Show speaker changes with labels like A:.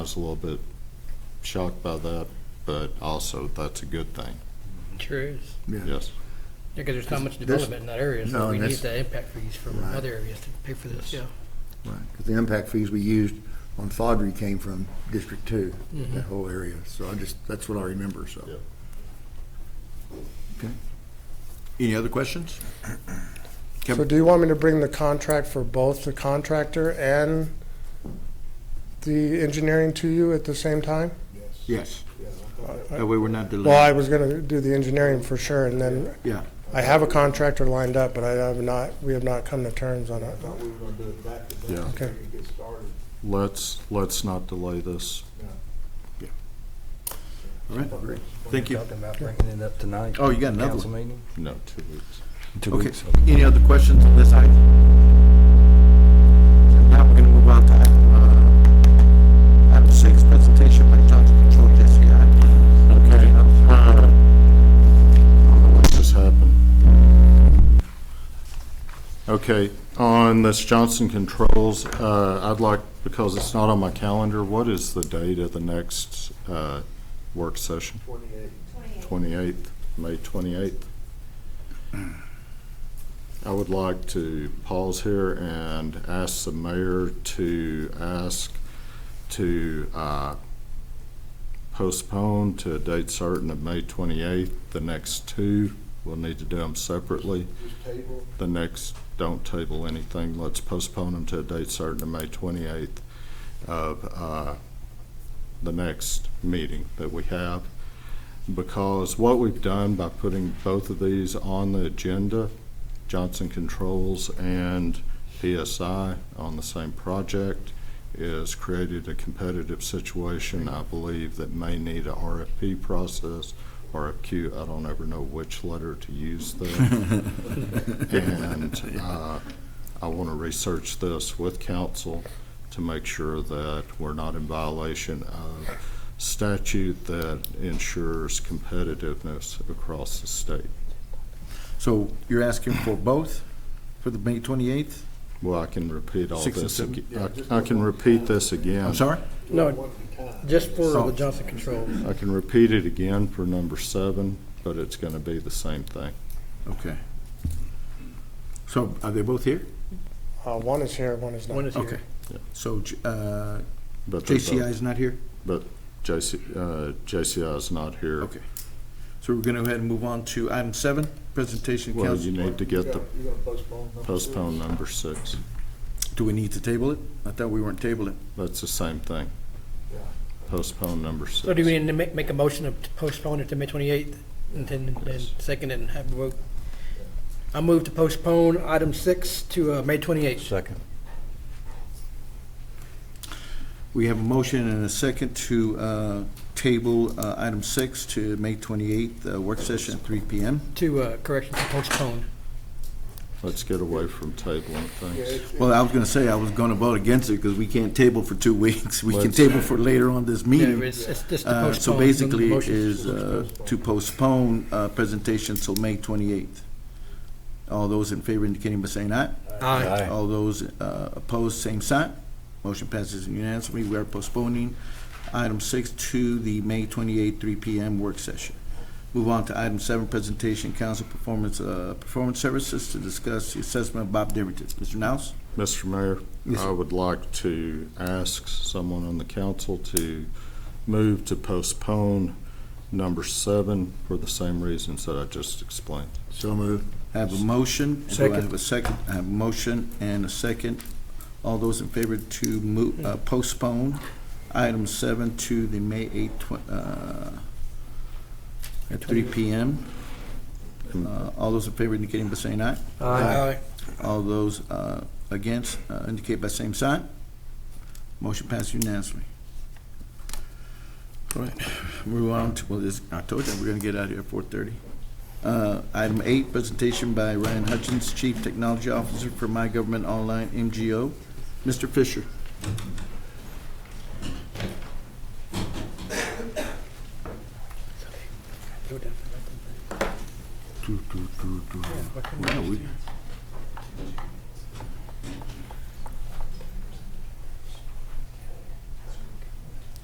A: I was a little bit shocked by that, but also that's a good thing,
B: Sure is.
C: Yeah,
A: yes.
B: Because there's not much
C: This-
B: development in that area,
C: no,
B: so we
C: and
B: need
C: that's-
B: the impact fees from
C: Right.
B: other areas to pay for this, yeah.
A: Yes.
C: right. 'Cause the impact fees we used on Thodry came from District Two, that whole area. So I just, that's what I remember, so.
A: Yeah.
C: Okay.
D: Any other questions? Yep.
E: So do you want me to bring the contract for both the contractor and the engineering to you at the same time?
D: Yes. That way we're not
E: Well, I
D: delayed.
E: was gonna do the engineering for sure, and then
D: Yeah,
E: I have a contractor lined up, but I have not, we have not come to terms on it.
F: Thought we were gonna do it back to
A: Yeah.
F: back,
E: Okay.
F: and get started.
A: Let's, let's not delay this.
D: all right. Thank you.
G: Talking about bringing it up tonight.
D: Oh, you got another
G: Council
D: one.
G: meeting?
A: No, two weeks.
G: Two
D: Okay,
G: weeks.
D: any other questions on this item? Now we're gonna move on to item, uh, item six, presentation by Johnson E Control Jesse Okay.
A: What just happened? Okay, on this Johnson Controls, uh, I'd like, because it's not on my calendar, what is the date of the next, uh, work session?
F: Twenty-eight.
A: 28th, May 28th. I would like to pause here and ask the mayor to ask to uh, postpone to a date certain of May 28th. The next two, we'll need to do them separately.
F: Just table,
A: The next, don't table anything. Let's postpone them to a date certain of May 28th of uh, the next meeting that we have. Because what we've done by putting both of these on the agenda, Johnson Controls and PSI on the same project, is created a competitive situation, I believe, that may need a RFP process, RFQ, I don't ever know which letter to use there. And uh, I want to research this with council to make sure that we're not in violation of statute that ensures competitiveness across the state.
D: So you're asking for both for the May twenty-eighth?
A: Well, I can repeat all
D: Six and
A: this,
D: seven?
A: ag- I I can repeat this again.
D: I'm sorry?
B: No,
F: one at a time.
B: just for
D: Oh.
B: the Johnson Controls.
A: I can repeat it again for number seven, but it's going to be the same thing.
D: Okay. So are they both here?
E: Uh, one is here, one is not.
B: One is
D: Okay.
B: here.
D: So, J- uh,
A: But they're both-
D: JCI is not here?
A: But JC, uh, JCI is not here.
D: Okay. So we're gonna go ahead and move on to item seven, presentation
A: Well, you
D: council.
A: need to get
F: You
A: the
F: gotta- You gotta postpone. number
A: postpone
F: six.
A: number six.
D: Do we need to table it? I thought we weren't tabling.
A: That's the same thing.
F: Yeah.
A: Postpone number six.
B: So do we need to make, make a motion to postpone it to May twenty-eighth and then, then second it and have a vote? I move to postpone item six to, uh, May twenty-eighth.
G: Second.
D: We have a motion and a second to uh, table uh, item six to May 28th, uh, work session at 3 PM.
B: To, uh, correction, to postpone.
A: Let's get away from tabling
F: Yeah,
A: things.
F: it's-
D: Well, I was going to say, I was going to vote against it because we can't table for two weeks. We can
A: Let's-
D: table for later on this
B: Yeah,
D: meeting.
B: it's, it's just to
D: Uh,
B: postpone.
D: So
B: the
D: basically,
B: motion.
D: is uh, to postpone uh, presentation till May 28th. All those in favor indicating by saying aye.
B: Aye.
D: All those uh, opposed, same sign. Motion passes unanimously. We are postponing item six to the May 28, 3 p.m. work session. Move on to item seven, presentation, council performance, uh, performance services to discuss the assessment of Bob Divgerton. Mr. Nels?
A: Mr. Mayor,
D: Yes, sir.
A: I would like to ask someone on the council to move to postpone number seven for the same reasons that I just explained.
C: So moved.
D: I have a motion. Do I
B: Second.
D: have a second? I have a motion and a second. All those in favor to mo- uh, postpone item seven to the May 8, tw- uh, at 3 p.m. Uh, All those in favor indicating by saying aye.
B: Aye.
D: All those uh, against uh, indicate by same sign. Motion passed unanimously. All right, move on to, well, this, I told you, we're gonna get out of here at four thirty. Uh, Item eight, presentation by Ryan Hutchins, Chief Technology Officer for My Government Online, MGO. Mr. Fisher.
B: Go down.
D: Wow, we-